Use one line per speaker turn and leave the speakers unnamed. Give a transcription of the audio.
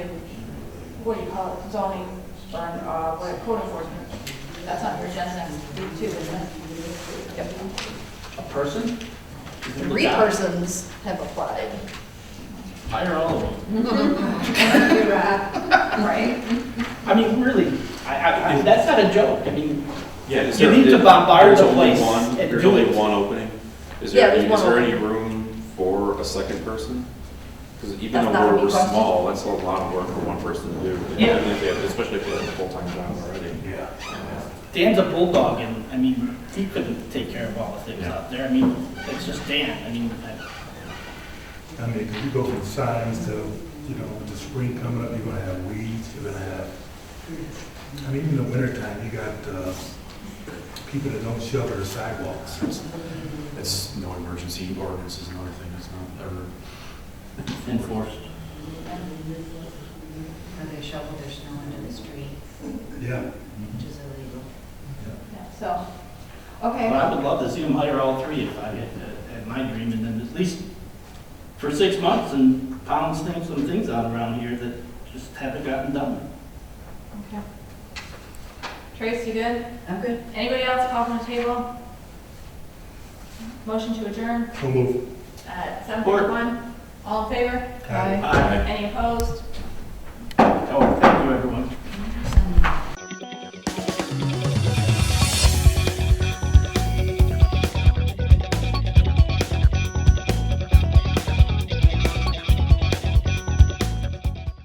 what do you call it, zoning, or, uh, what, code enforcement. That's on your agenda next week too, isn't it? Yep.
A person?
Three persons have applied.
Hire all of them.
Right?
I mean, really, I, I, that's not a joke. I mean,
Yeah, is
You
there-
need to
there-
bombard
there's
the
only
place
one-
and
There's
do
only
it.
one opening? Is
Yeah,
there,
there's
any-
one
is there any
opening.
room for a second person? Because even
That's
though
not a
we're,
me
we're
question.
small, that's a lot of work for one person to do.
Yeah.
And if they have- Especially if they have a full-time job already.
Dan's a bulldog, and I mean, he couldn't take care of all the things out there. I mean, it's just Dan. I mean, I-
I mean, 'cause you go from signs to, you know, with the spring coming up, you're gonna have weeds, you're gonna have, I mean, in the wintertime, you got, uh, people that don't shovel the sidewalks.
It's no emergency ordinance is another thing, it's not ever.
enforced.
Or they shovel their snow into the street,
Yeah,
which is illegal.
Yeah, So, okay.
But I would love to see him hire all three if I had, had my dream, and then at least for six months and pound things, some things out around here that just haven't gotten done.
Okay. Trace, you good?
I'm good.
Anybody else call from the table? Motion to adjourn
so move.
at seven fifty-one. All in favor?
Aye.
Aye.
Any opposed?
Oh, thank you, everyone.